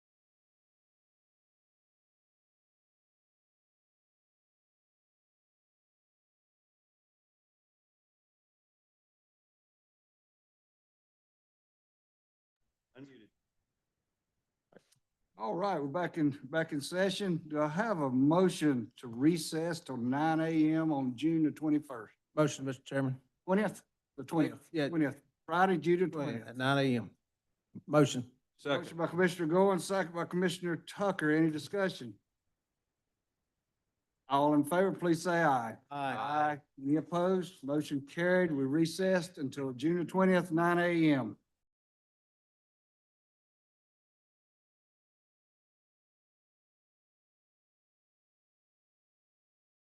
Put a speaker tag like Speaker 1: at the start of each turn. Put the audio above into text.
Speaker 1: All right, we're back in, back in session. Do I have a motion to recess till nine AM on June the twenty-first?
Speaker 2: Motion, Mr. Chairman.
Speaker 1: Twentieth, the twentieth,
Speaker 2: Yeah.
Speaker 1: twentieth, Friday, June the twentieth.
Speaker 2: At nine AM. Motion.
Speaker 1: Motion by Commissioner Goins, second by Commissioner Tucker. Any discussion? All in favor, please say aye. Any opposed? Motion carried. We recessed until June the twentieth, nine AM.